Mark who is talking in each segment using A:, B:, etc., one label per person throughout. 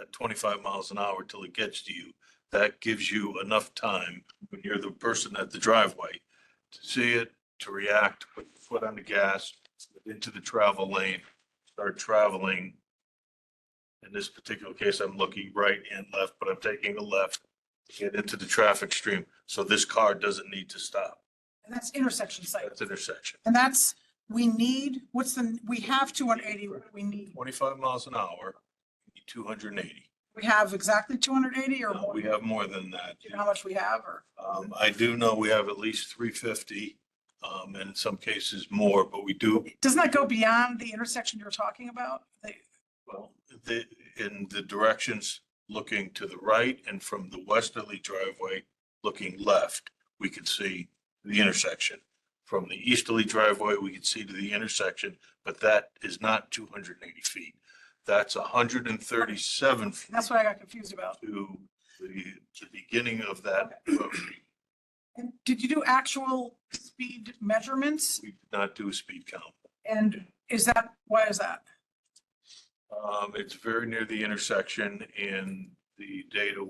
A: at twenty-five miles an hour till it gets to you. That gives you enough time when you're the person at the driveway to see it, to react, put your foot on the gas, into the travel lane, start traveling. In this particular case, I'm looking right and left, but I'm taking a left to get into the traffic stream. So this car doesn't need to stop.
B: And that's intersection site.
A: That's intersection.
B: And that's, we need, what's the, we have two hundred eighty, what do we need?
A: Twenty-five miles an hour, two hundred and eighty.
B: We have exactly two hundred eighty or more?
A: We have more than that.
B: Do you know how much we have or?
A: Um, I do know we have at least three fifty, um, and in some cases more, but we do,
B: Doesn't that go beyond the intersection you're talking about? The-
A: well, the, in the directions looking to the right and from the westerly driveway, looking left, we could see the intersection. From the easterly driveway, we could see to the intersection, but that is not two hundred and eighty feet. That's hundred and thirty-seven feet.
B: That's what I got confused about.
A: to the, the beginning of that. road.
B: And did you do actual speed measurements?
A: We did not do a speed count.
B: And is that, why is that?
A: Um, it's very near the intersection and the data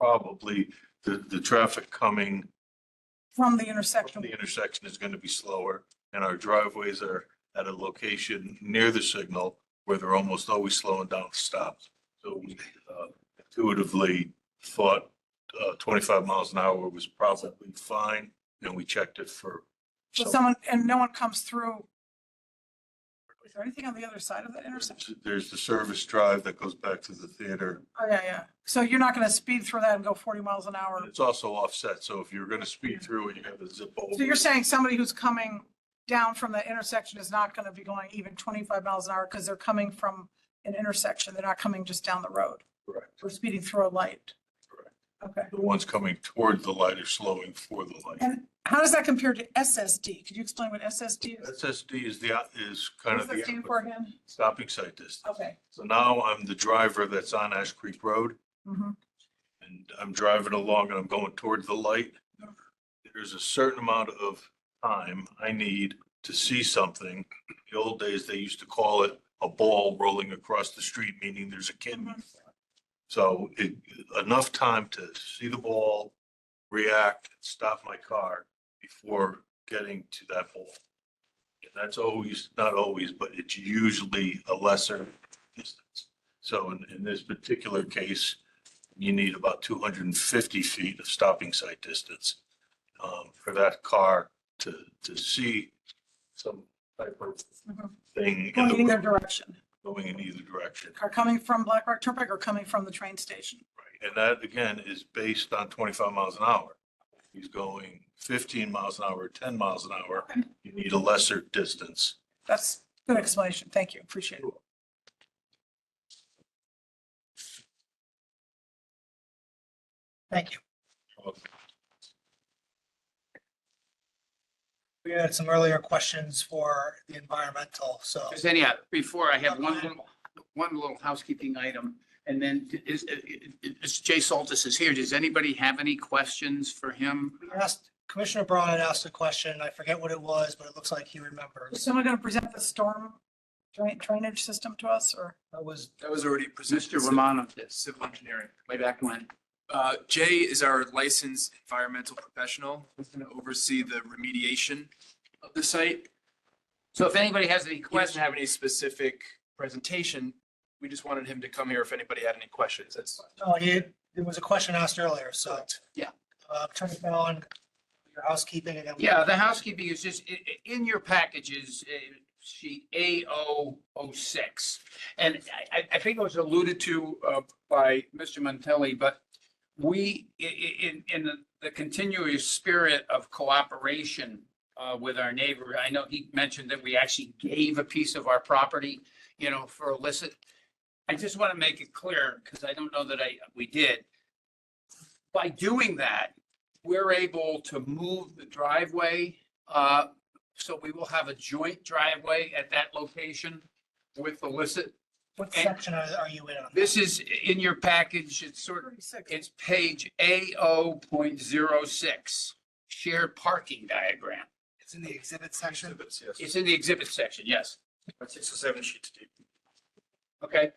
A: probably, the, the traffic coming
B: From the
A: from
B: intersection?
A: the intersection is going to be slower. And our driveways are at a location near the signal where they're almost always slowing down to stop. So we uh, intuitively thought uh, twenty-five miles an hour was probably fine, and we checked it for.
B: So
A: some-
B: someone, and no one comes through? Is there anything on the other side of that intersection?
A: There's the service drive that goes back to the theater.
B: Oh, yeah, yeah. So you're not going to speed through that and go forty miles an hour?
A: and It's also offset, so if you're gonna speed through it, you have to zip over.
B: So you're saying somebody who's coming down from the intersection is not going to be going even 25 miles an hour because they're coming from an intersection. They're not coming just down the road.
A: Correct.
B: We're speeding through a light.
A: Correct.
B: Okay.
A: The ones coming toward the light are slowing for the light.
B: And how does that compare to SSD? Could you explain what SSD is?
A: SSD is the, is kind
B: What's
A: of
B: that stand
A: the
B: for again?
A: stopping site distance.
B: Okay.
A: So now I'm the driver that's on Ash Creek Road
B: Mhm.
A: and I'm driving along and I'm going toward the light. There's a certain amount of time I need to see something. The old days, they used to call it a ball rolling across the street, meaning there's a kid in
B: Mhm.
A: So it, enough time to see the ball, react, stop my car before getting to that ball. And that's always, not always, but it's usually a lesser distance. So in, in this particular case, you need about two hundred and fifty feet of stopping sight distance um, for that car to, to see some type of
B: Mhm.
A: thing in
B: Going in
A: the,
B: their direction.
A: going in either direction.
B: Are coming from Black Rock Turnpike or coming from the train station?
A: Right, and that again is based on twenty-five miles an hour. He's going fifteen miles an hour, ten miles an hour,
B: Okay.
A: you need a lesser distance.
B: That's good explanation. Thank you. Appreciate it. Thank you.
C: We had some earlier questions for the environmental, so.
D: Just anyhow, before I have one little, one little housekeeping item, and then is, uh, is Jay Saltis is here. Does anybody have any questions for him?
C: we asked- Commissioner Braun had asked a question, I forget what it was, but it looks like he
B: Is
C: remembers.
B: someone going to present the storm drain- drainage system to us or?
C: That was,
E: That was already presented.
D: Mr.
E: Civ-
D: Romano,
E: Civil engineering.
D: way back when.
E: Uh, Jay is our licensed environmental professional. He's going to oversee the remediation of the site.
D: So if anybody has any
E: He doesn't
D: questions,
E: have any specific presentation. We just wanted him to come here if anybody had any questions. That's
C: oh, he, there was a question asked earlier, so.
D: Yeah.
C: Uh, Attorney Fallon, your housekeeping and then.
D: yeah, the housekeeping is just, i- i- in your packages, uh, sheet A O O six. And I, I- I think it was alluded to uh, by Mr. Montelli, but we, i- i- in, in the- the continuous spirit of cooperation uh, with our neighbor, I know he mentioned that we actually gave a piece of our property, you know, for illicit. I just want to make it clear, because I don't know that I, we did. By doing that, we're able to move the driveway, uh, so we will have a joint driveway at that location with illicit.
C: What section are, are you in on?
D: This is in your package, it's sort of
B: Thirty-six.
D: it's page AO point zero six, shared parking diagram.
C: It's in the exhibit section.
E: Exhibits, yes.
D: It's in the exhibit section, yes.
E: Six or seven sheets deep.
D: Okay,